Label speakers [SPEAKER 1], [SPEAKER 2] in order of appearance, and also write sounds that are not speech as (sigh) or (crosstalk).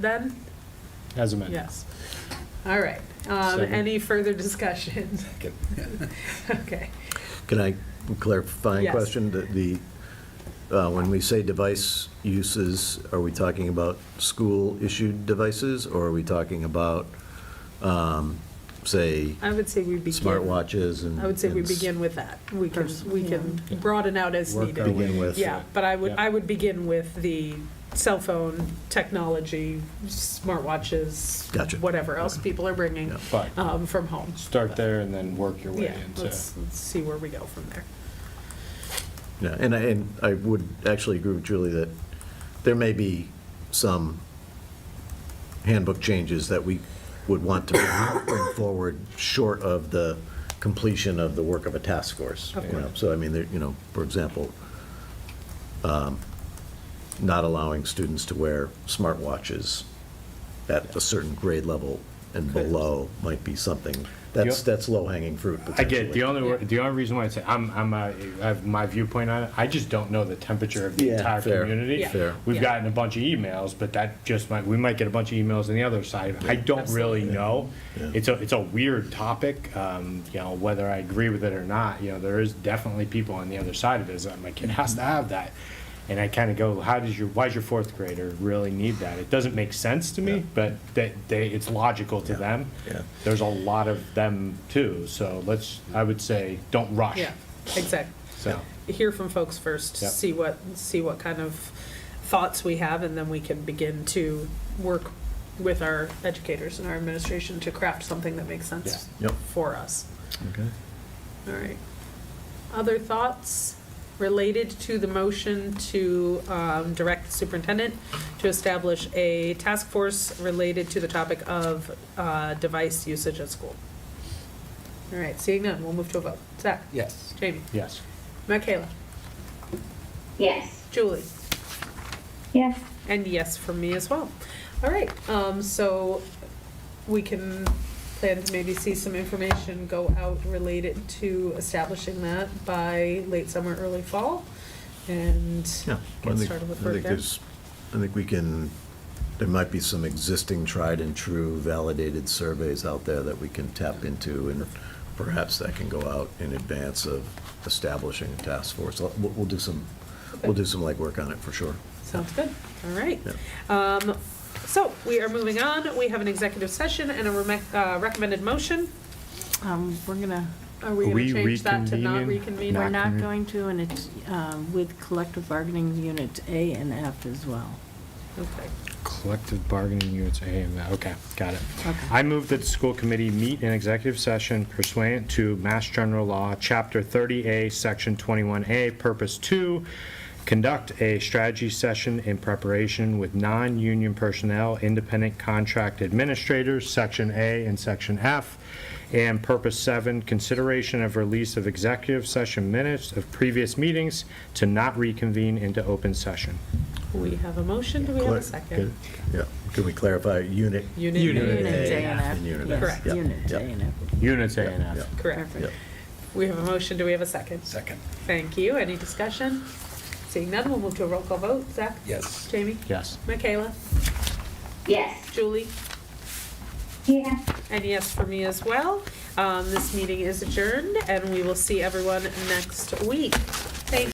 [SPEAKER 1] then?
[SPEAKER 2] As amended.
[SPEAKER 1] Yes. All right. Um,
[SPEAKER 2] Second.
[SPEAKER 1] Any further discussion?
[SPEAKER 3] Second.
[SPEAKER 1] (laughs) Okay.
[SPEAKER 4] Can I clarify a
[SPEAKER 1] Yes.
[SPEAKER 4] question? The- The, uh, when we say device uses, are we talking about school-issued devices, or are we talking about, um, say,
[SPEAKER 1] I would say we begin.
[SPEAKER 4] smartwatches and?
[SPEAKER 1] I would say we
[SPEAKER 4] and s-
[SPEAKER 1] begin with that. We can,
[SPEAKER 5] Pers-
[SPEAKER 1] we can
[SPEAKER 2] yeah.
[SPEAKER 1] broaden out as
[SPEAKER 2] Work
[SPEAKER 1] needed.
[SPEAKER 2] our way
[SPEAKER 4] Begin with.
[SPEAKER 1] Yeah, but I would,
[SPEAKER 2] Yeah.
[SPEAKER 1] I would begin with the cell phone technology, smartwatches.
[SPEAKER 4] Gotcha.
[SPEAKER 1] Whatever else people are bringing
[SPEAKER 4] Yeah.
[SPEAKER 2] Fine.
[SPEAKER 1] um, from home.
[SPEAKER 2] Start there and then work your way
[SPEAKER 1] Yeah,
[SPEAKER 2] into.
[SPEAKER 1] let's, let's see where we go from there.
[SPEAKER 4] Yeah, and I, and I would actually agree with Julie that there may be some handbook changes that we would want to bring forward short of the completion of the work of a task force.
[SPEAKER 1] Of
[SPEAKER 4] you know.
[SPEAKER 1] course.
[SPEAKER 4] So I mean, there- you know, for example, um, not allowing students to wear smartwatches at a certain grade level and
[SPEAKER 2] Correct.
[SPEAKER 4] below might be something, that's,
[SPEAKER 2] Yep.
[SPEAKER 4] that's low-hanging fruit
[SPEAKER 2] I
[SPEAKER 4] potentially.
[SPEAKER 2] get it. the only wor- the only reason why I say I'm I'm a, I have my viewpoint on it. I just don't know the temperature of the
[SPEAKER 4] Yeah,
[SPEAKER 2] entire
[SPEAKER 4] fair,
[SPEAKER 2] community.
[SPEAKER 1] Yeah. fair.
[SPEAKER 2] We've
[SPEAKER 1] Yeah.
[SPEAKER 2] gotten a bunch of emails, but that just might we might get a bunch of emails on the other side. I don't
[SPEAKER 1] Absolutely.
[SPEAKER 2] really know.
[SPEAKER 4] Yeah.
[SPEAKER 2] It's a it's a weird topic. Um, you know whether I agree with it or not. You know there is definitely people on the other side of it. That my kid
[SPEAKER 4] Mm-hmm.
[SPEAKER 2] has to have that. And I kind of go, how does your why does your fourth grader really need that? It doesn't make sense to me,
[SPEAKER 4] Yeah.
[SPEAKER 2] but they, they it's logical to them
[SPEAKER 4] Yeah.
[SPEAKER 2] there's a lot of them too, so let's, I would say, don't rush.
[SPEAKER 1] Yeah, exactly.
[SPEAKER 2] So,
[SPEAKER 1] hear from folks first,
[SPEAKER 2] Yep.
[SPEAKER 1] see what, see what kind of thoughts we have, and then we can begin to work with our educators and our administration to craft something that makes sense
[SPEAKER 4] Yeah. Yep.
[SPEAKER 1] for us.
[SPEAKER 4] Okay.
[SPEAKER 1] All right. Other thoughts related to the motion to um, direct the superintendent to establish a task force related to the topic of uh, device usage at school? All right, seeing none, we'll move to a vote. Zach?
[SPEAKER 3] Yes.
[SPEAKER 1] Jamie?
[SPEAKER 2] yes,
[SPEAKER 1] Michaela?
[SPEAKER 5] Yes.
[SPEAKER 1] Julie?
[SPEAKER 5] Yes.
[SPEAKER 1] And yes for me as well. All right, um, so we can plan to maybe see some information go out related to establishing that by late summer, early fall, and
[SPEAKER 4] Yeah. I
[SPEAKER 1] get
[SPEAKER 4] think-
[SPEAKER 1] started with
[SPEAKER 4] I
[SPEAKER 1] work
[SPEAKER 4] think
[SPEAKER 1] there.
[SPEAKER 4] there's, I think we can, there might be some existing tried and true validated surveys out there that we can tap into, and perhaps that can go out in advance of establishing a task force. We'll, we'll do some, we'll do some legwork on it for sure.
[SPEAKER 1] Sounds good, all right.
[SPEAKER 4] Yeah.
[SPEAKER 1] Um, so we are moving on, we have an executive session and a remec- uh, recommended motion.
[SPEAKER 6] Um, We're gonna,
[SPEAKER 1] Are we
[SPEAKER 2] Are
[SPEAKER 1] gonna
[SPEAKER 2] we
[SPEAKER 1] change that to not
[SPEAKER 2] reconvening?
[SPEAKER 1] reconvene?
[SPEAKER 6] we're
[SPEAKER 2] Not
[SPEAKER 6] not
[SPEAKER 2] gonna-
[SPEAKER 6] going to, and it's um, with collective bargaining units A and F as well.
[SPEAKER 1] Okay,
[SPEAKER 2] collective bargaining units, A and F. okay, got it.
[SPEAKER 6] Okay.
[SPEAKER 2] I move that the school committee meet in executive session pursuant to Mass General Law, Chapter 30A, Section 21A, Purpose 2, conduct a strategy session in preparation with non-union personnel, independent contract administrators, Section A and Section F, and Purpose 7, consideration of release of executive session minutes of previous meetings to not reconvene into open session.
[SPEAKER 1] we have a motion, do we have a second?
[SPEAKER 4] Yeah, can we clarify, unit?
[SPEAKER 1] Unit
[SPEAKER 2] Unit
[SPEAKER 6] Units A and F.
[SPEAKER 4] and unit
[SPEAKER 6] yes,
[SPEAKER 1] Correct.
[SPEAKER 4] Yeah,
[SPEAKER 6] Units
[SPEAKER 4] yeah.
[SPEAKER 6] A and F.
[SPEAKER 2] Units A and
[SPEAKER 4] Yeah,
[SPEAKER 2] F.
[SPEAKER 1] Correct,
[SPEAKER 6] Perfect.
[SPEAKER 4] yeah.
[SPEAKER 1] we have a motion, do we have a second?
[SPEAKER 3] Second.
[SPEAKER 1] Thank you. Any discussion? Seeing none, we'll move to a roll call vote. Zach?
[SPEAKER 3] Yes.
[SPEAKER 1] Jamie?
[SPEAKER 2] Yes.
[SPEAKER 1] Michaela?
[SPEAKER 5] Yes.
[SPEAKER 1] Julie?
[SPEAKER 5] Yes.
[SPEAKER 1] And yes for me as well. Um, This meeting is adjourned, and we will see everyone next week.